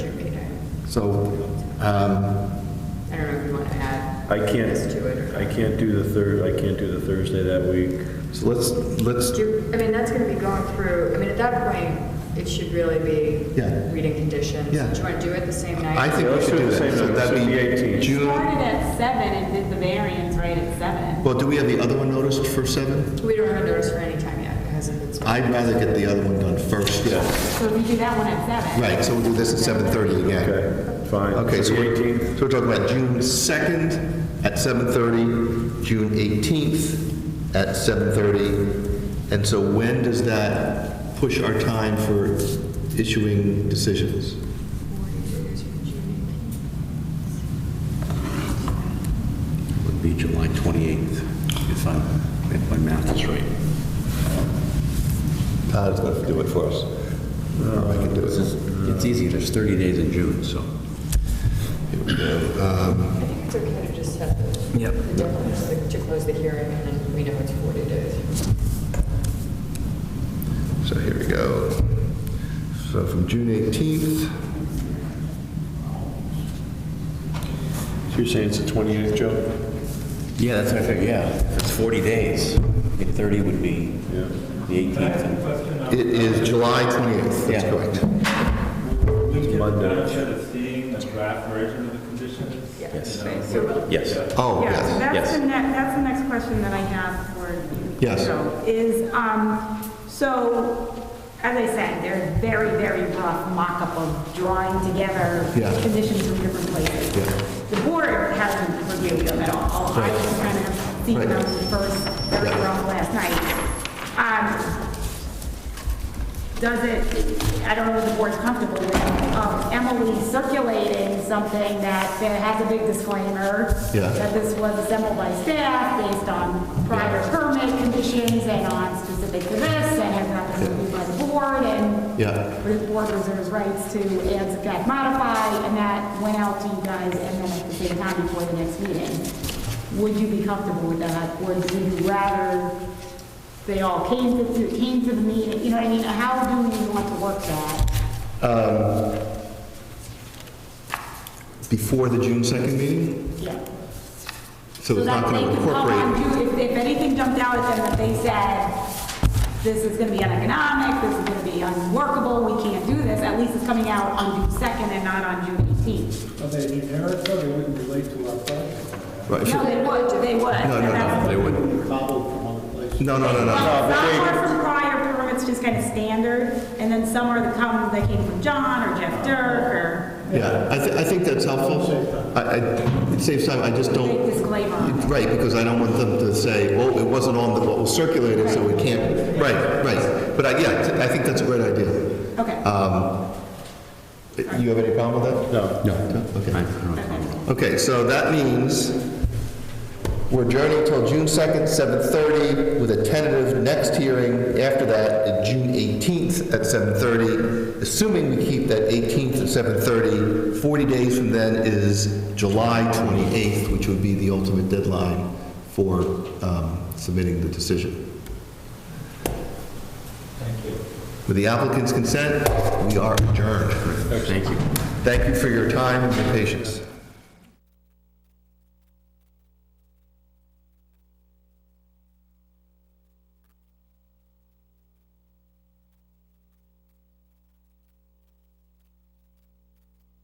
So, um, I don't know if you want to add I can't, this to it or. I can't do the third, I can't do the Thursday that week. so let's, let's, Do, I mean, that's going to be going through, I mean, at that point, it should really be Yeah. reading conditions. Yeah. Do you want to do it the same night? I think we Let's should do do the that. same So note. that'd So be the 18th. June, Started at seven and did the variance right at seven. well, do we have the other one noticed for 7? We don't have a notice for any time yet because of its. I'd rather get the other one done first. So we do that one at seven. Right, so we'll do this at 7:30 again. Okay, fine. Okay, so the we're, 18th, so we're talking about June 2nd at 7:30, June 18th at 7:30. And so when does that push our time for issuing decisions? would be July 28th, if I'm, if my math is right. Todd is going to do it for us. I can do This it. is- It's easy, there's 30 days in June, so. Here we go. I Um, think it's okay to just set the. Yep. the deadline is like To close the hearing and then we know it's 40 days. So here we go. So from June 18th, so you're saying it's the 28th, Joe? Yeah, that's what I figured, yeah. It's 40 days. I think 30 would be Yeah. the 18th. it is July 28th, that's Yeah. correct. We get the Monday. benefit of seeing the draft version of the conditions. Yes. You know, Yes. Oh, Yeah, yes. that's Yes. the next, that's the next question that I have for you. Yes. Joe, Is, um, so, as I said, they're very, very rough mock-up of drawing together Yeah. conditions from different places. Yeah. The board hasn't reviewed them at all. I just kind of seen Right. them first, very Yeah. rough last night. Um, does it, I don't know if the board's comfortable with, um, Emily circulating something that, that has a big disclaimer. Yeah. That this was assembled by staff based on prior permit conditions and on specific to this and has not been reviewed by the board and. Yeah. The board reserves rights to add, subtract, modify, and that went out to you guys and then at the same time before the next meeting. Would you be comfortable with that, or do you rather they all came to, came to the meeting, you know what I mean? How do we want to work that? Before the June 2nd meeting? Yeah. So it's not that going they to could come on incorporate. June- If, if anything jumped out at them that they said, this is gonna be uneconomic, this is gonna be unworkable, we can't do this, at least it's coming out on June second and not on June eighteenth. Are they generic, though? They wouldn't relate to our project? Right, No, they would, they would. No, no, no, They would. Cobbled from other places? No, no, no, no. Well, Some are from prior permits, just kind of standard, and then some are the come, that came from John or Jeff Dirk or Yeah, I, th- I think that's helpful. I, I, it saves time, I just big don't, disclaimer. right, because I don't want them to say, oh, it wasn't on the, what was circulated, so we can't, right, right. But I, yeah, I think that's a great idea. Okay. Um, You have any problem with that? No. No. Okay. I- I don't know. Okay, so that means we're adjourning till June 2nd, 7:30, with a tentative next hearing after that, uh, June 18th at 7:30. Assuming we keep that 18th at 7:30, 40 days from then is July 28th, which would be the ultimate deadline for um, submitting the decision. Thank you. With the applicant's consent, we are adjourned. Thank you. Thank you for your time and your patience.